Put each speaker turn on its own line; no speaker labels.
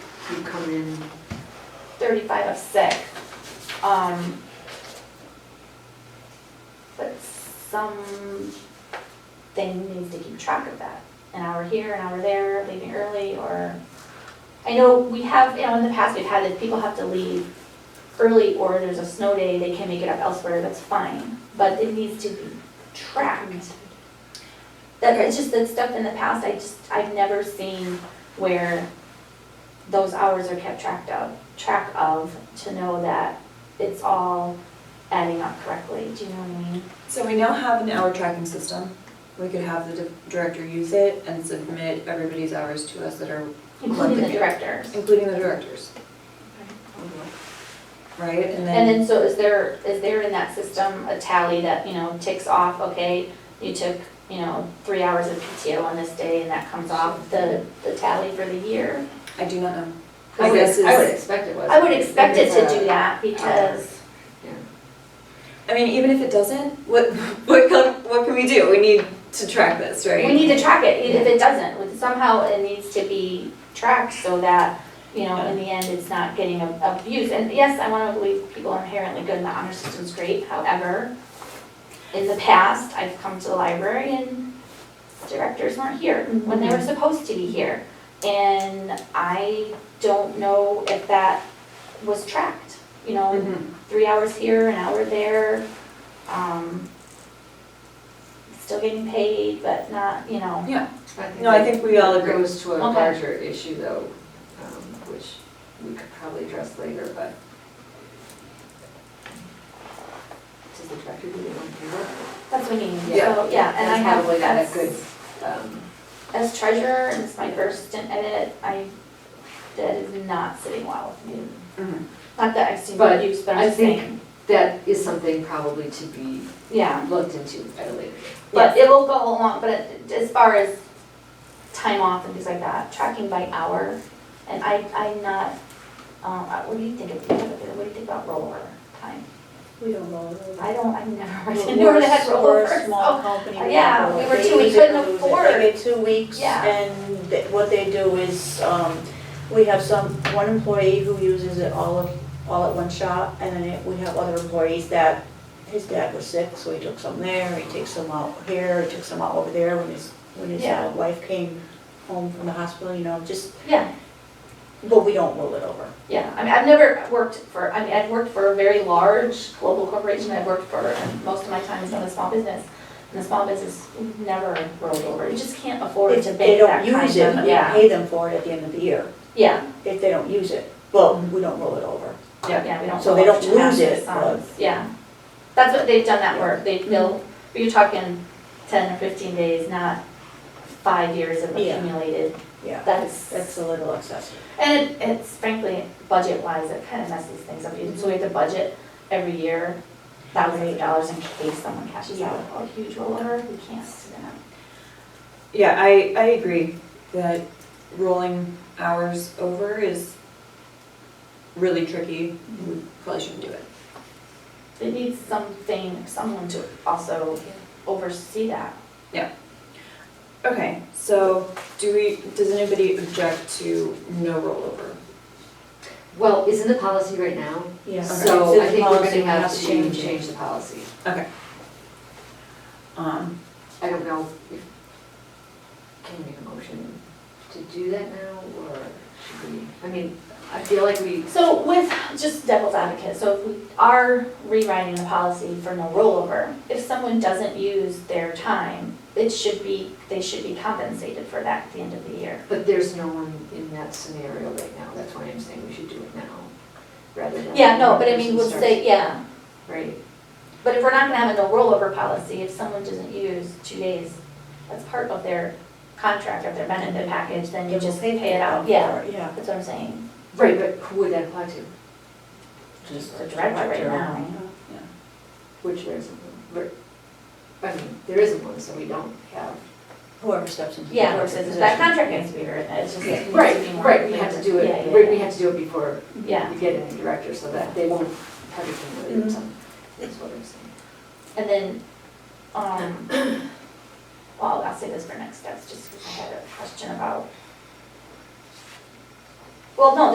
you come in,
35 of sick. Um, But something needs to keep track of that. An hour here, an hour there, leaving early, or, I know we have, you know, in the past, we've had that people have to leave early, or there's a snow day, they can make it up elsewhere, that's fine, but it needs to be tracked. That, it's just that stuff in the past, I just, I've never seen where those hours are kept tracked of, track of, to know that it's all adding up correctly, do you know what I mean?
So we now have an hour tracking system. We could have the di- director use it and submit everybody's hours to us that are,
Including the directors.
including the directors, right? And
And
then,
then, so is there, is there in that system a tally that, you know, ticks off, okay, you took, you know, three hours of PTO on this day, and that comes off the, the tally for the year?
I do not know.
I
My
would,
guess
I would
is,
expect it Um, was.
I would expect it to do that, because
I mean, even if it doesn't, what, what, can- what can we do? We need to track this, right?
we need to track it, even if it doesn't, somehow it needs to be tracked so that, you know, in the end, it's not getting ab- abused. And yes, I wanna believe people are inherently good and the honor system's great, however, in the past, I've come to the library and directors weren't here when they were supposed to be here. And I don't know if that was tracked, you know,
Mhm.
Mm-hmm.
three hours here, an hour there, um, still getting paid, but not, you know.
No, I think we all
It
agree.
goes to a
Okay.
larger issue though, um, which we could probably address later, but. Does the director do their own payroll?
That's what I mean, so,
Yeah.
yeah, and
That's
I have,
probably not a
that's,
good, um,
as treasurer, and it's my first stint at it, I, that is not sitting well with me.
Mhm.
Not that I've
Mm-hmm.
seen
But
it used, but
I
I'm just
think-
saying,
that is something probably to be
yeah.
looked into at a later date.
But it will go along, but it- as far as time off and things like that, tracking by hour, and I, I'm not, um, I- what do you think of, what do you think about rollover time?
We don't roll over.
I don't, I've never worked in
We're
where
a
they had
s- we're
rollovers.
a small company.
oh, yeah, we were
They
two- we
use it
couldn't
or lose it.
afford-
They get two weeks
Yeah.
and th- what they do is, um, we have some, one employee who uses it all of, all at one shop and then it- we have other employees that, his dad was sick, so he took some there, he takes some out here, he took some out over there when his, when his
Yeah.
uh, wife came home from the hospital, you know, just,
Yeah,
but we don't roll it over.
yeah, I mean, I've never worked for, I mean, I've worked for a very large global corporation, I've worked for, and most of my time is on a small business. And the small business never rolled over, you just can't afford
If
to
they
bank that
don't
kind of,
use it, we
yeah,
pay them for it at the end of the year,
yeah,
if they don't use it, but we don't roll it over.
Yeah.
yeah, we don't.
So they
roll over
don't lose
massive
it,
sums. Yeah, that's what, they've done that work, they, they'll,
Mm-hmm.
but you're talking ten or fifteen days, not five years of
Yeah.
accumulated,
Yeah,
that's.
that's a little excessive.
And it- it's frankly, budget-wise, it kind of messes things up, so we have to budget every year thousands of dollars in case someone cashes out a huge rollover, we can't do that.
Yeah, I, I agree that rolling hours over is really tricky. We probably shouldn't do it.
It needs something, someone to also oversee that.
Okay, so do we, does anybody object to no rollover?
Well, isn't the policy right now?
Yeah.
So I think we're gonna have to
change
change the policy.
Okay. Um,
I don't know if, can we make a motion to do that now, or should we, I mean, I feel like we,
So with, just devil's advocate, so if we are rewriting the policy for no rollover, if someone doesn't use their time, it should be, they should be compensated for that at the end of the year.
but there's no one in that scenario right now, that's why I'm saying we should do it now, rather than.
Yeah, no, but I
when
mean,
the
we'll
person
say, yeah,
starts. Right,
But if we're not gonna have a no rollover policy, if someone doesn't use two days, that's part of their contract, of their benefit package, then you just pay it out, yeah,
Yeah.
that's what I'm saying.
right, but who would that apply to?
Just
The director right now,
Which there isn't one, but, I mean, there isn't one, so we don't have.
Whoever steps into. the
yeah,
director
versus that
position.
contract needs to be written, it's just. it needs to be more
Right, we have to do
clear.
it,
Yeah,
right, we
yeah,
have to do it before
Yeah,
we get a new director, so that they won't have it
Mm-hmm.
from Williamson, is what I'm saying.
and then, um, well, I'll say this for next steps, just because I had a question about. Well, no,